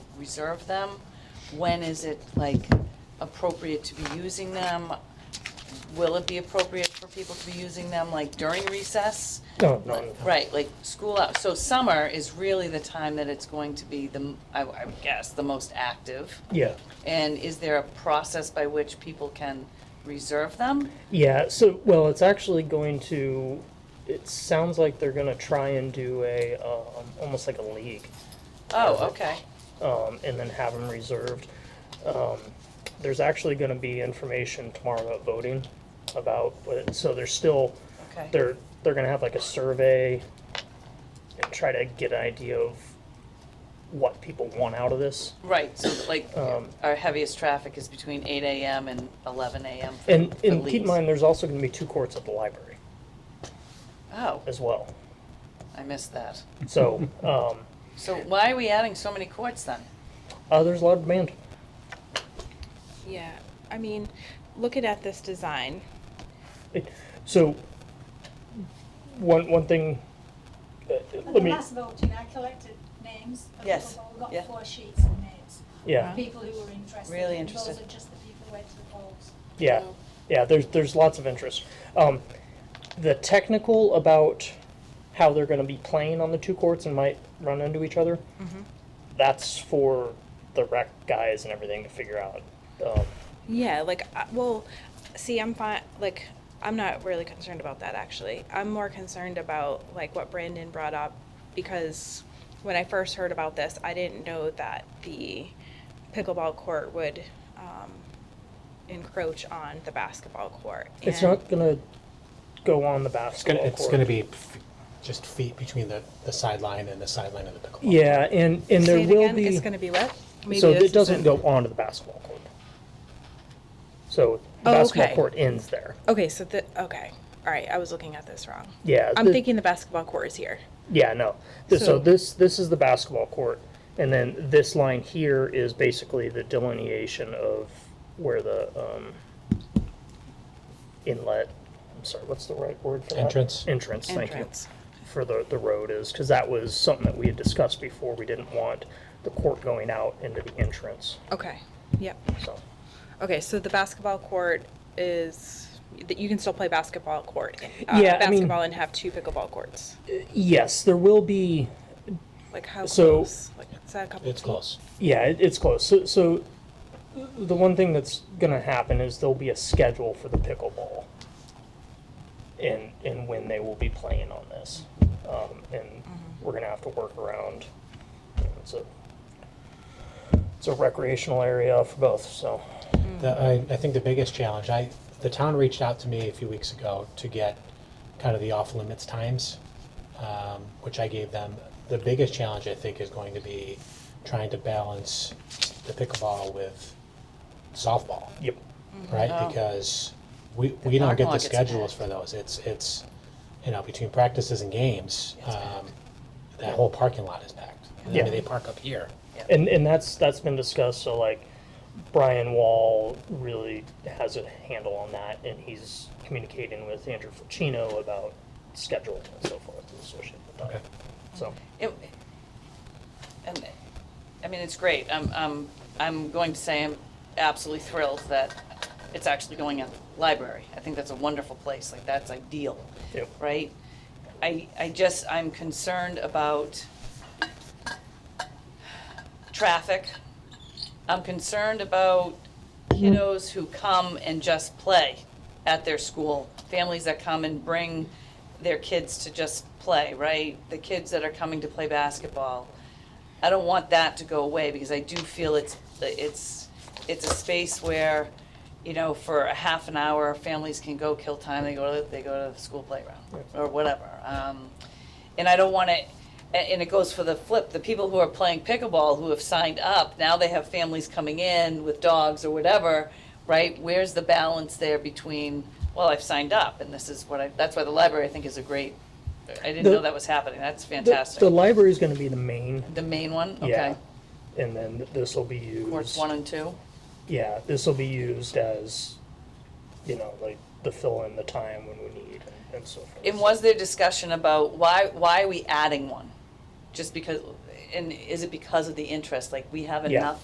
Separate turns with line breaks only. reserve them? When is it like appropriate to be using them? Will it be appropriate for people to be using them like during recess?
No, Oh, no, no.
Right, like school out, so summer is really the time that it's going to be the, m- I I would guess, the most active.
Yeah,
And is there a process by which people can reserve them?
yeah. So, well, it's actually going to. It sounds like they're going to try and do a um, almost like a league,
Oh, okay,
um, and then have them reserved. Um, there's actually going to be information tomorrow about voting, about what- so there's still
okay.
they're they're going to have like a survey and try to get an idea of what people want out of this.
Right, so that, like,
Um,
our heaviest traffic is between eight AM and eleven AM for
And
for
and keep in
leagues.
mind, there's also going to be two courts at the library
Oh,
as well.
I missed that.
So um,
So why are we adding so many courts then?
uh, there's a lot of demand.
Yeah, I mean, looking at this design,
It- So, one, one thing, uh,
At the
let me,
last voting, I collected names of
Yes,
people, but we
yeah.
got four sheets of names.
yeah,
People who were interested.
Really
and
interested.
Those are just the people who went to the polls.
yeah, yeah, there's, there's lots of interest. Um, the technical about how they're gonna be playing on the two courts and might run into each other,
Mm-hmm.
that's for the rec guys and everything to figure out. Um,
yeah, like, I- well, see, I'm fine, like, I'm not really concerned about that actually. I'm more concerned about like what Brandon brought up because when I first heard about this, I didn't know that the pickleball court would um, encroach on the basketball court.
It's
And-
not gonna go on the
It's gonna,
basketball
it's
court.
gonna be f- just feet between the, the sideline and the sideline of the pickleball.
Yeah, and, and
Say
there
it
will
again,
be.
It's gonna be what? Maybe
So
this
it doesn't go
isn't-
onto the basketball court. So the
Oh,
basketball
okay.
court ends there.
Okay, so the, okay, all right, I was looking at this wrong.
Yeah.
I'm
thi-
thinking the basketball court is here.
Yeah, no. Th- So
So-
this, this is the basketball court. And then this line here is basically the delineation of where the, um, inlet, I'm sorry, what's the right word for that?
Entrance.
Entrance, thank you.
Entrance.
For the, the road is, because that was something that we had discussed before. We didn't want the court going out into the entrance,
Okay, yep.
so.
Okay, so the basketball court is, that you can still play basketball court. uh,
Yeah, I mean-
Basketball and have two pickleball courts.
Yes, there will be,
Like how
So-
close? Like is that a couple?
It's close.
Yeah, it, it's close. So, so the one thing that's going to happen is there'll be a schedule for the pickleball and and when they will be playing on this, um, and we're going to have to work around. you know, It's a it's a recreational area for both. So
The, I, I think the biggest challenge, I, the town reached out to me a few weeks ago to get kind of the off-limits times, um, which I gave them. The biggest challenge, I think, is going to be trying to balance the pickleball with softball,
yep,
Oh.
right? Because we, we don't
Softball
get the
gets
schedules for those. It's, it's, you know, between practices and games, um, that whole parking lot is packed. I mean,
Yeah.
they park up here.
and and that's that's been discussed. So like. Brian Wall really has a handle on that, and he's communicating with Andrew Ficino about scheduling and so forth associated with that.
Okay.
So.
It- And, I mean, it's great. I'm, I'm, I'm going to say I'm absolutely thrilled that it's actually going at the library. I think that's a wonderful place, like, that's ideal,
Yep.
right? I, I just, I'm concerned about traffic. I'm concerned about kiddos who come and just play at their school, families that come and bring their kids to just play, right? The kids that are coming to play basketball. I don't want that to go away because I do feel it's, it's, it's a space where, you know, for a half an hour, families can go kill time, they go to, they go to the school playground or whatever. Um, and I don't want to, and it goes for the flip, the people who are playing pickleball who have signed up, now they have families coming in with dogs or whatever, right? Where's the balance there between, well, I've signed up and this is what I, that's why the library I think is a great, I didn't
The-
know that was happening, that's
The- The
fantastic.
library is going to be the main,
The main one, okay.
yeah. And then th- this will be used.
Courts one and two,
Yeah, this will be used as, you know, like the fill in the time when we need and, and so forth.
and was there discussion about why, why are we adding one? Just because, and is it because of the interest? Like, we have
Yeah.
enough